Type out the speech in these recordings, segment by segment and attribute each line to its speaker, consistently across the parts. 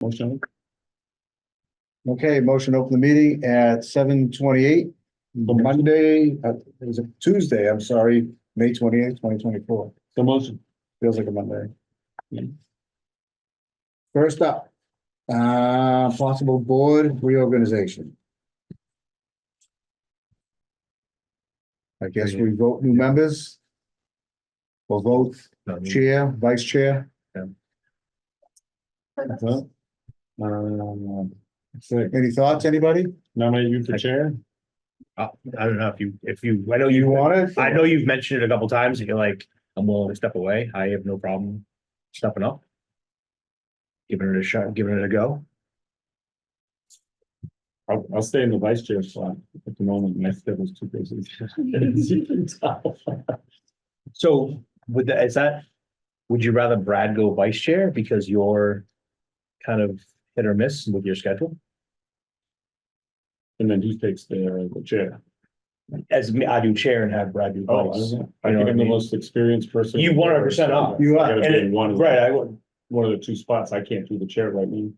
Speaker 1: Motion.
Speaker 2: Okay, motion to open the meeting at seven twenty-eight, Monday, uh, it was a Tuesday, I'm sorry, May twenty-eighth, twenty twenty-four.
Speaker 1: The motion. Uh,
Speaker 2: Feels like a Monday.
Speaker 1: Yeah.
Speaker 2: First up, uh, possible board reorganization. I guess we vote new members. We'll vote chair, vice chair.
Speaker 1: Well, um,
Speaker 2: Uh, Any thoughts, anybody?
Speaker 1: Nominate you for chair?
Speaker 3: Uh, I don't know if you, if you, I know
Speaker 2: You
Speaker 3: you,
Speaker 2: want it?
Speaker 3: I know you've mentioned it a couple times and you're like, I'm willing to step away. I have no problem stepping up. Giving it a shot, giving it a go.
Speaker 1: I'll, I'll stay in the vice chair slot at the moment. My schedule's too busy. As you can tell.
Speaker 3: So would that, is that, would you rather Brad go vice chair because you're kind of hit or miss with your schedule?
Speaker 1: And then he takes the, the chair.
Speaker 3: As me, I do chair and have Brad do
Speaker 1: Oh, I
Speaker 3: vice.
Speaker 1: I
Speaker 3: You know
Speaker 1: think
Speaker 3: what I
Speaker 1: I'm the
Speaker 3: mean?
Speaker 1: most experienced person.
Speaker 3: You 100% are.
Speaker 2: You are,
Speaker 1: I gotta be
Speaker 3: and
Speaker 1: in
Speaker 3: it-
Speaker 1: one of the-
Speaker 3: Right, I would,
Speaker 1: One of the two spots. I can't do the chair right now.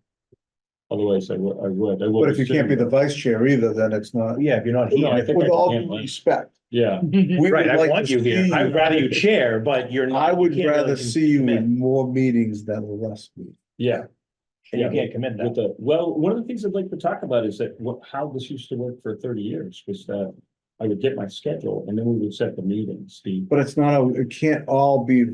Speaker 1: Otherwise, I would, I would. I will
Speaker 2: But if you can't be the
Speaker 1: sitting there.
Speaker 2: vice chair either, then it's not,
Speaker 3: yeah, if you're not
Speaker 1: No, I
Speaker 3: here.
Speaker 1: think I
Speaker 2: with all
Speaker 1: can,
Speaker 2: due
Speaker 1: like-
Speaker 2: respect.
Speaker 1: Yeah,
Speaker 2: we would
Speaker 3: Right, I
Speaker 2: like
Speaker 3: want
Speaker 2: to
Speaker 3: you here.
Speaker 2: see-
Speaker 3: I'd rather you chair, but you're not.
Speaker 2: I
Speaker 3: you
Speaker 2: would
Speaker 3: can't really
Speaker 2: rather see you
Speaker 3: commit.
Speaker 2: in more meetings than less meetings.
Speaker 1: yeah.
Speaker 3: And you can't commit
Speaker 1: With
Speaker 3: that.
Speaker 1: the, well, one of the things I'd like to talk about is that what, how this used to work for thirty years was that I would get my schedule and then we would set the meetings, the.
Speaker 2: But it's not, a. it can't all be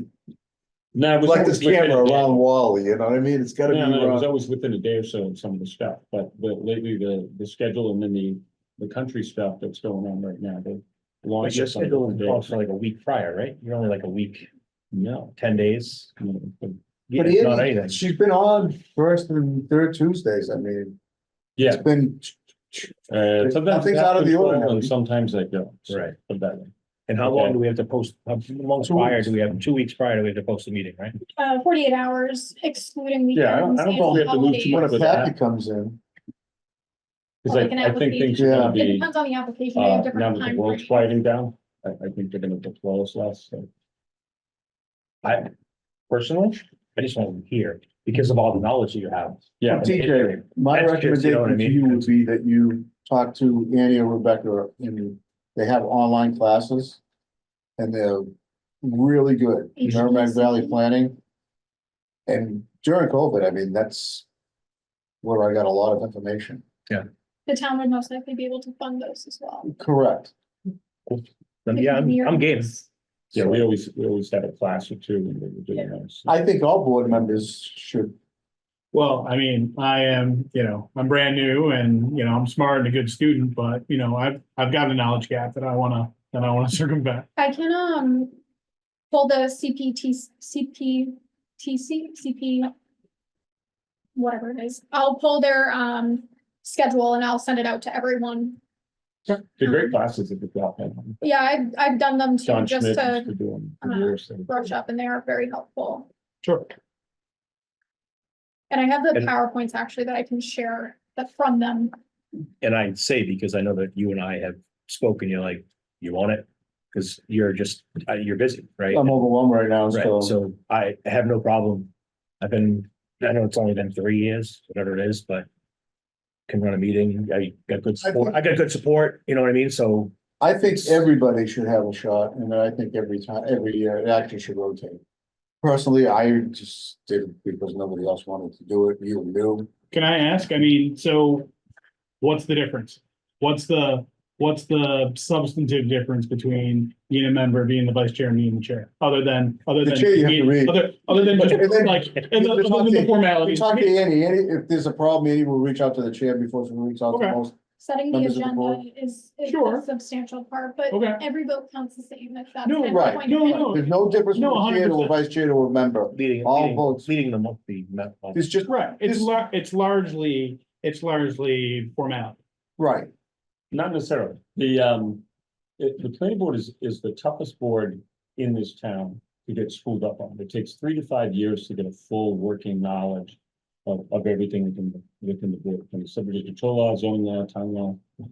Speaker 1: No, it was
Speaker 2: like
Speaker 1: always
Speaker 2: this
Speaker 1: within
Speaker 2: camera
Speaker 1: a day.
Speaker 2: around Wally, you know what I mean? It's gotta be
Speaker 1: No, no, no, it was
Speaker 2: around.
Speaker 1: always within a day or so of some of the stuff, but, but lately the, the schedule and then the, the country stuff that's going on right now, the.
Speaker 3: But
Speaker 1: launch
Speaker 3: your
Speaker 1: is on a
Speaker 3: schedule
Speaker 1: different
Speaker 3: is
Speaker 1: day.
Speaker 3: also like a week prior, right? You're only like a week,
Speaker 1: No.
Speaker 3: ten days.
Speaker 1: no, but-
Speaker 3: Yeah,
Speaker 2: But it
Speaker 3: not
Speaker 2: is-
Speaker 3: anything.
Speaker 2: She's been on first and third Tuesdays, I mean.
Speaker 1: Yeah,
Speaker 2: It's been,
Speaker 1: uh, sometimes.
Speaker 2: Nothing's
Speaker 1: I have
Speaker 2: out of the
Speaker 1: control
Speaker 2: ordinary.
Speaker 1: And sometimes I don't. so
Speaker 3: Right.
Speaker 1: put it that way.
Speaker 3: And how
Speaker 1: Okay.
Speaker 3: long do we have to post, how long
Speaker 2: Two
Speaker 3: prior
Speaker 2: weeks.
Speaker 3: do we have, two weeks prior do we have to post the meeting, right?
Speaker 4: uh, forty-eight hours excluding um, weekends.
Speaker 1: Yeah, I don't- I don't
Speaker 4: and
Speaker 1: think we have to move too
Speaker 2: when
Speaker 1: much
Speaker 4: holidays.
Speaker 2: a
Speaker 1: with that.
Speaker 2: packet comes in,
Speaker 1: Cause I,
Speaker 4: Like an
Speaker 1: I think things are
Speaker 2: application.
Speaker 1: gonna
Speaker 4: It
Speaker 1: be.
Speaker 4: depends on the application, they
Speaker 1: Uh,
Speaker 4: have
Speaker 1: now
Speaker 4: different
Speaker 1: that the
Speaker 4: time
Speaker 1: world's
Speaker 4: frames.
Speaker 1: quieting down, I, I think they're gonna deploy us less, so.
Speaker 3: I personally, I just want to hear because of all the knowledge that you have.
Speaker 1: Yeah,
Speaker 2: TJ, my
Speaker 3: That's just, you know
Speaker 2: recommendation
Speaker 3: what I
Speaker 2: to
Speaker 3: mean?
Speaker 2: you would be that you talk to Annie or Rebecca, and they have online classes. And they're really good, Merrimack Valley Planning. And during COVID, I mean, that's where I got a lot of information.
Speaker 4: The town would most likely be able to fund those as well.
Speaker 2: Correct.
Speaker 3: Um, Yeah, I'm, I'm game.
Speaker 1: yeah, we always, we always had a class or two when we were doing
Speaker 4: Yeah.
Speaker 1: those.
Speaker 2: I think all board members should,
Speaker 5: Well, I mean, I am, you know, I'm brand new and, you know, I'm smart and a good student, but, you know, I've, I've got a knowledge gap that I wanna, that I wanna circumvent.
Speaker 4: I can, um, pull the CPT, CPTC, CP, whatever it is. I'll pull their, um, schedule and I'll send it out to everyone.
Speaker 1: The great classes that we got.
Speaker 4: Yeah, I've, I've done them too,
Speaker 1: John Schmidt
Speaker 4: just
Speaker 1: used
Speaker 4: to
Speaker 1: to do them
Speaker 4: uh,
Speaker 1: for years. and-
Speaker 4: brush up and they are very helpful.
Speaker 5: Sure.
Speaker 4: And I have the
Speaker 3: And-
Speaker 4: PowerPoints actually that I can share that from them.
Speaker 3: And I say because I know that you and I have spoken, you're like, you want it? Because you're just, uh, you're busy, right?
Speaker 2: I'm overwhelmed right now,
Speaker 3: Right,
Speaker 2: so.
Speaker 3: so I have no problem. I've been, I know it's only been three years, whatever it is, but. Can run a meeting, I got good support, I got good support, you know what I mean, so.
Speaker 2: I think everybody should have a shot, and I think every time, every year, it actually should rotate. Personally, I just did it because nobody else wanted to do it, you knew.
Speaker 5: Can I ask, I mean, so what's the difference? What's the, what's the substantive difference between being a member, being the vice chair and being the chair? Other than, other
Speaker 2: The
Speaker 5: than.
Speaker 2: chair you have to read.
Speaker 5: Other, other than
Speaker 2: And then-
Speaker 5: just like, and other than the
Speaker 2: We
Speaker 5: formalities.
Speaker 2: talked to Annie, Annie, if there's a problem, Annie will reach out to the chair before she reaches out to
Speaker 5: Okay.
Speaker 2: most.
Speaker 4: Setting the
Speaker 2: Members of the board?
Speaker 4: agenda is, is
Speaker 5: Sure.
Speaker 4: a substantial part, but
Speaker 5: Okay.
Speaker 4: every vote counts the same. if that's
Speaker 5: No,
Speaker 4: the
Speaker 2: right.
Speaker 4: point.
Speaker 5: No, no.
Speaker 2: There's no difference
Speaker 5: No,
Speaker 2: from chair to a
Speaker 5: 100%.
Speaker 2: vice chair to a member.
Speaker 3: Leading,
Speaker 2: All
Speaker 3: leading,
Speaker 2: votes.
Speaker 3: leading them up the. met- well,
Speaker 2: It's just,
Speaker 5: Right, it's
Speaker 2: This-
Speaker 5: lar- it's largely, it's largely formality.
Speaker 2: right,
Speaker 1: Not necessarily. The, um, it- the planning board is, is the toughest board in this town to get schooled up on. It takes three to five years to get a full working knowledge of, of everything within, the- within the board, from the subdivision control law, zoning law, town law,